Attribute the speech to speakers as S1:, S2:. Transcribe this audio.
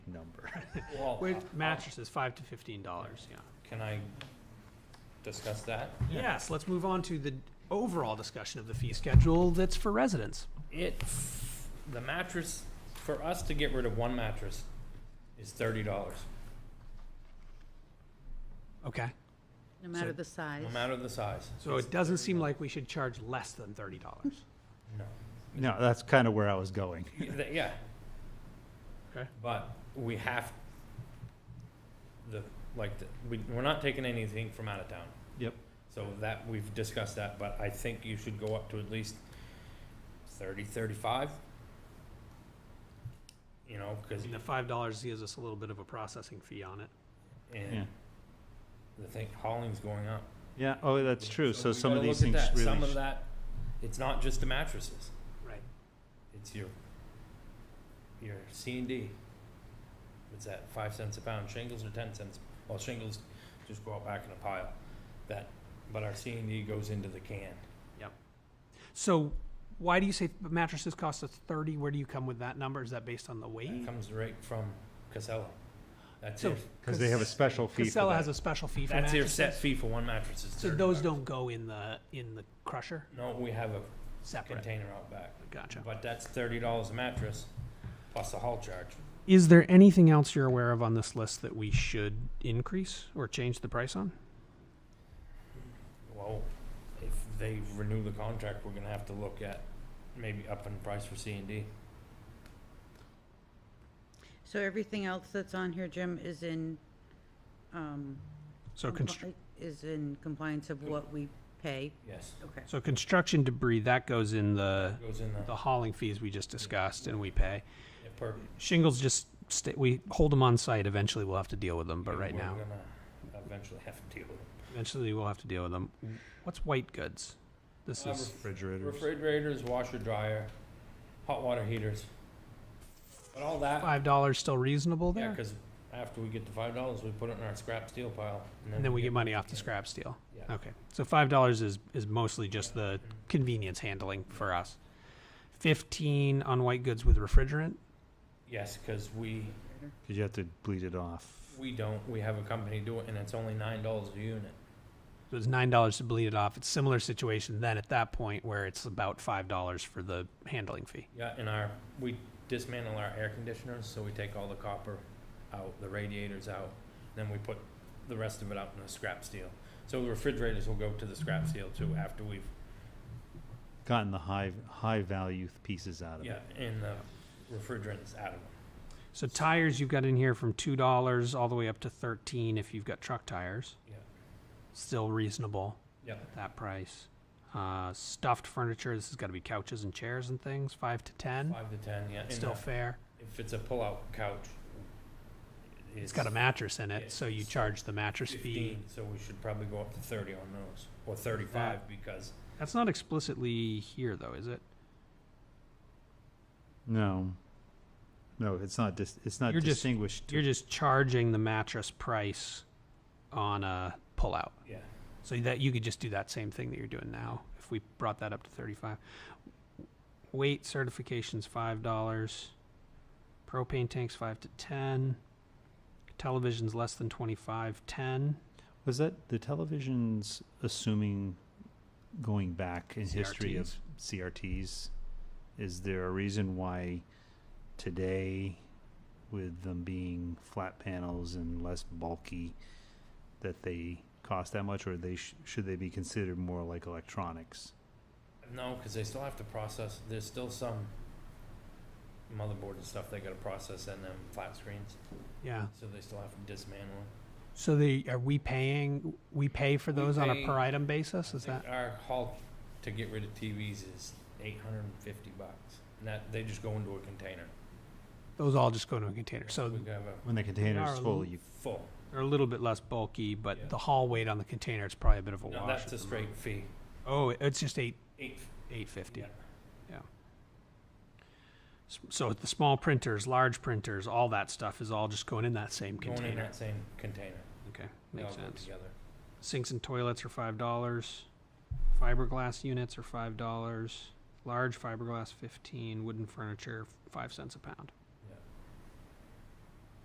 S1: Well, uh,
S2: With mattresses, five to fifteen dollars, yeah.
S1: Can I discuss that?
S2: Yes, let's move on to the overall discussion of the fee schedule that's for residents.
S1: It's, the mattress, for us to get rid of one mattress is thirty dollars,
S2: Okay,
S3: No matter
S2: So-
S3: the size.
S1: no matter the size.
S2: so
S1: It's
S2: it doesn't
S1: $30.
S2: seem like we should charge less than thirty dollars.
S1: No,
S4: No, that's kind of where I was going.
S1: Yeah, th- yeah.
S2: Okay.
S1: But we have, the, like, the- we, we're not taking anything from out of town.
S4: Yep.
S1: So that, we've discussed that, but I think you should go up to at least thirty, thirty-five. You know, cause,
S2: And the five dollars gives us a little bit of a processing fee on it.
S1: and
S4: Yeah.
S1: the thing, hauling's going up.
S4: Yeah, oh, that's true. So
S1: we
S4: some of
S1: gotta
S4: these
S1: look
S4: things
S1: at that.
S4: really.
S1: Some of
S4: sh-
S1: that, it's not just the mattresses,
S2: Right.
S1: it's your, your C and D. What's that, five cents a pound, shingles are ten cents, well, shingles just go out back in a pile, that, but our C and D goes into the can.
S2: So why do you say mattresses cost us thirty? Where do you come with that number? Is that based on the
S1: That
S2: weight?
S1: comes right from Casella. That's
S2: So
S1: it.
S4: Cause they have a special fee for
S2: Casella has
S4: that.
S2: a special fee for
S1: That's your set
S2: mattresses.
S1: fee for one mattress is
S2: So
S1: $30.
S2: those don't go in the, in the crusher
S1: No, we have a
S2: separate?
S1: container out back,
S2: Gotcha.
S1: but that's thirty dollars a mattress, plus the haul charge.
S2: Is there anything else you're aware of on this list that we should increase or change the price on?
S1: Well, if they renew the contract, we're gonna have to look at maybe upping the price for C and D.
S3: So everything else that's on here, Jim, is in, um,
S2: So
S3: compli-
S2: constru-
S3: is in compliance of what we pay?
S1: Yes.
S3: Okay.
S2: so construction debris, that goes in the,
S1: Goes in
S2: the
S1: the,
S2: hauling fees we just discussed and we pay.
S1: it per.
S2: Shingles just stay, we hold them on site. Eventually we'll have to deal with them, but right
S1: we're
S2: now,
S1: gonna Eventually have to deal with it.
S2: eventually we'll have to deal with them. What's white goods? This
S1: Uh,
S2: is
S4: Refrigerators.
S1: Refrigerators, washer, dryer, hot water heaters. But all that,
S2: five dollars still reasonable
S1: yeah,
S2: there?
S1: cause after we get the five dollars, we put it in our scrap steel pile.
S2: And then we get money off the scrap steel.
S1: Yeah.
S2: Okay, so five dollars is, is mostly just the convenience handling for us. Fifteen on white goods with refrigerant?
S1: Yes, cause we,
S4: Cause you have to bleed it off.
S1: we don't, we have a company do it and it's only nine dollars a unit.
S2: So it's nine dollars to bleed it off. It's similar situation then at that point where it's about five dollars for the handling fee.
S1: Yeah, and our, we dismantle our air conditioners, so we take all the copper out, the radiators out, then we put the rest of it out in the scrap steel. So the refrigerators will go to the
S2: Mm-hmm.
S1: scrap steel too after we've,
S4: Gotten the high, high value pieces out of
S1: yeah,
S4: it.
S1: and the refrigerants out of them.
S2: So tires you've got in here from two dollars all the way up to thirteen if you've got truck tires.
S1: Yeah.
S2: Still reasonable.
S1: Yeah.
S2: At that price. Uh, stuffed furniture, this has gotta be couches and chairs and things, five to ten,
S1: Five to ten, yeah. and
S2: still
S1: the-
S2: fair.
S1: If it's a pullout couch.
S2: It's got a mattress in
S1: yeah,
S2: it, so you
S1: it's
S2: charge the mattress fee.
S1: Fifteen, so we should probably go up to thirty on those, or thirty-five because
S2: That's not explicitly here though, is it?
S4: No. No, it's not dis, it's not
S2: You're just-
S4: distinguished.
S2: You're just charging the mattress price on a pullout.
S1: Yeah,
S2: So that you could just do that same thing that you're doing now if we brought that up to 35. Weight certifications $5. Propane tanks 5 to 10. Televisions less than 25, 10.
S4: Was that the televisions assuming going back in history of CRTs? Is there a reason why today, with them being flat panels and less bulky, that they cost that much, or they sh- should they be considered more like electronics?
S1: no, cause they still have to process, there's still some motherboard and stuff they gotta process in them flat screens.
S2: Yeah.
S1: So they still have to dismantle them.
S2: So they are we paying we pay for
S1: We
S2: those on
S1: pay-
S2: a per item basis is
S1: I think
S2: that
S1: Our haul to get rid of TVs is eight hundred and fifty bucks, and that, they just go into a container.
S2: those all just go into a container. So
S1: We have a
S4: When the container
S2: are
S4: is
S2: a
S4: full,
S2: little
S4: you
S1: full,
S2: they're a little bit less bulky, but
S1: Yeah.
S2: the haul weight on the container is probably a bit of a
S1: no,
S2: wash.
S1: that's
S2: at
S1: a
S2: the
S1: straight
S2: moment.
S1: fee,
S2: Oh, it's just 8
S1: eight,
S2: 850.
S1: yeah,
S2: S- So the small printers, large printers, all that stuff is all just going in that same
S1: going in
S2: container.
S1: that same container.
S2: Okay,
S1: They
S2: makes
S1: all go
S2: sense.
S1: Together.
S2: Sinks and toilets are five dollars. Fiberglass units are five dollars. Large fiberglass fifteen. Wooden furniture five cents a pound.